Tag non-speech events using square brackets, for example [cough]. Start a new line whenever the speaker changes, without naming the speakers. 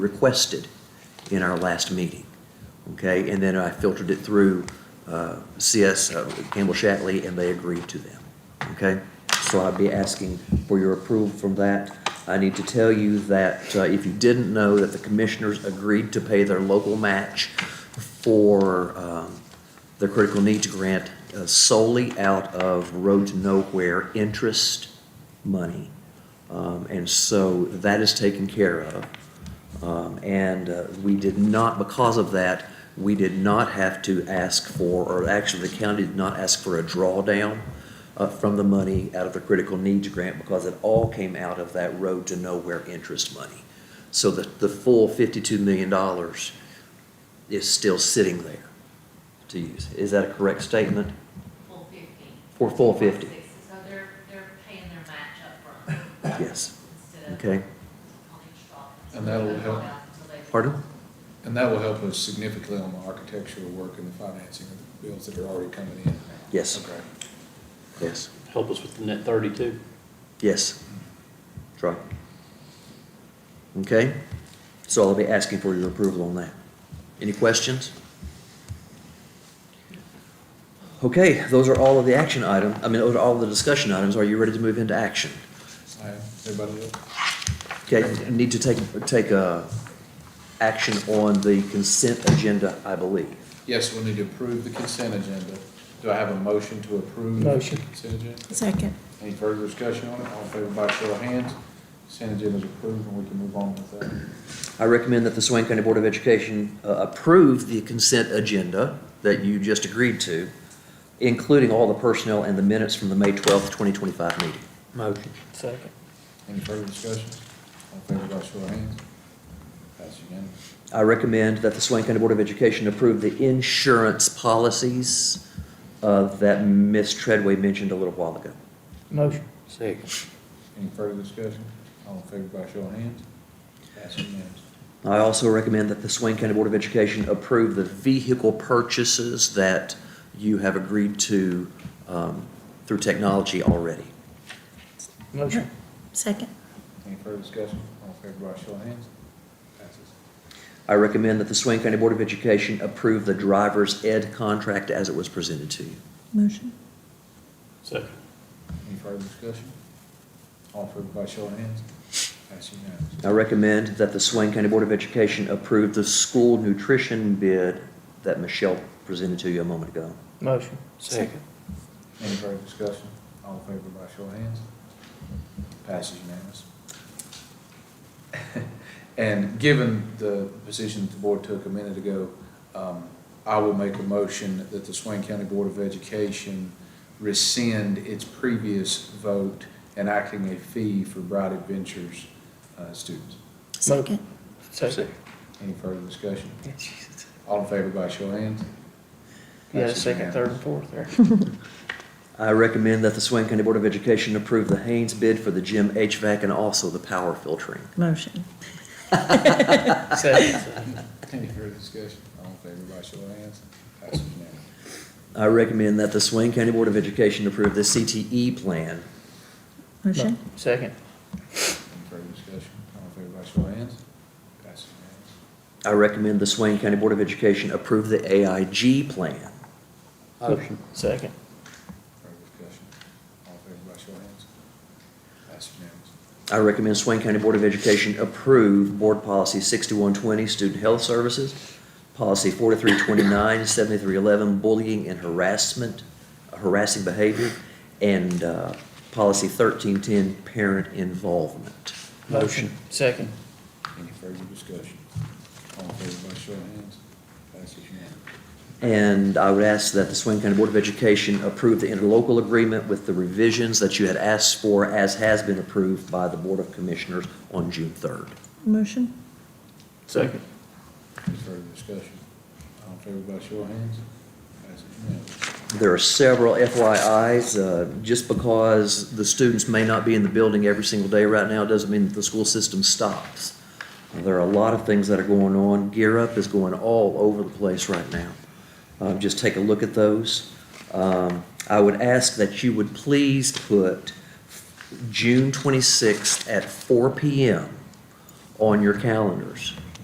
requested in our last meeting, okay? And then I filtered it through uh, CS, uh, Campbell Shatley, and they agreed to them, okay? So I'd be asking for your approval from that. I need to tell you that uh, if you didn't know, that the commissioners agreed to pay their local match for um, the critical needs grant uh, solely out of Road to Nowhere interest money. Um, And so that is taken care of. Um, And uh, we did not, because of that, we did not have to ask for, or actually, the county did not ask for a drawdown uh, from the money out of the critical needs grant because it all came out of that road to nowhere interest money. So the, the full $52 million is still sitting there to use. Is that a correct statement?
full fifty.
For full 50?
So they're, they're paying their match upfront
Yes.
instead of.
Okay.
On each dollar.
And that'll help.
Pardon?
And that will help us significantly on the architectural work and the financing of the bills that are already coming in.
Yes,
Okay.
yes,
help us with the net thirty-two.
yes. Try. Okay? So I'll be asking for your approval on that. Any questions? Okay, those are all of the action item, I mean, those are all the discussion items. Are you ready to move into action?
I am. Everybody else?
Okay, need to take, take a action on the consent agenda, I believe.
Yes, we need to approve the consent agenda. Do I have a motion to approve?
Motion.
the Consent agenda.
Second.
Any further discussion on it? All in favor by show of hands. Consent agenda is approved and we can move on with that.
I recommend that the Swain County Board of Education uh, approve the consent agenda that you just agreed to, including all the personnel and the minutes from the May 12th, 2025 meeting.
Motion. Second.
Any further discussion? All in favor by show of hands. Pass unanimous.
I recommend that the Swain County Board of Education approve the insurance policies uh, that Ms. Treadway mentioned a little while ago.
Motion.
Second.
Any further discussion? All in favor by show of hands. Pass unanimous.
I also recommend that the Swain County Board of Education approve the vehicle purchases that you have agreed to um, through technology already.
Motion. Second.
Any further discussion? All in favor by show of hands. Passes.
I recommend that the Swain County Board of Education approve the driver's ed contract as it was presented to you.
Motion.
Second.
Any further discussion? All in favor by show of hands? Pass unanimous.
I recommend that the Swain County Board of Education approve the school nutrition bid that Michelle presented to you a moment ago.
Motion.
Second.
Any further discussion? All in favor by show of hands? Passes unanimous. [laughs] And given the position that the board took a minute ago, um, I will make a motion that the Swain County Board of Education rescind its previous vote enacting a fee for Bright Adventures uh, students.
Second.
Second.
Any further discussion? All in favor by show of hands?
Yeah,
Passes
second,
unanimous.
third, and fourth there.
I recommend that the Swain County Board of Education approve the Haynes bid for the gym HVAC and also the power filtering.
Motion.
[laughs] Second.
Any further discussion? All in favor, by show of hands. Passes unanimous.
I recommend that the Swain County Board of Education approve the CTE plan.
Motion.
Second.
Any further discussion? All in favor, by show of hands. Passes unanimous.
I recommend the Swain County Board of Education approve the AIG plan.
Motion. Second.
Further discussion? All in favor, by show of hands. Passes unanimous.
I recommend Swain County Board of Education approve Board Policy 6120, Student Health Services, Policy 4329, 7311, Bullying and Harassment, Harassing Behavior, and uh, Policy 1310, Parent Involvement.
Motion. Second.
Any further discussion? All in favor, by show of hands. Passes unanimous.
And I would ask that the Swain County Board of Education approve the interlocal agreement with the revisions that you had asked for, as has been approved by the Board of Commissioners on June 3rd.
Motion.
Second.
Any further discussion? All in favor, by show of hands. Passes unanimous.
There are several FYIs, uh, just because the students may not be in the building every single day right now, doesn't mean that the school system stops. There are a lot of things that are going on. Gear Up is going all over the place right now. Uh, Just take a look at those. Um, I would ask that you would please put June 26th at 4 PM on your calendars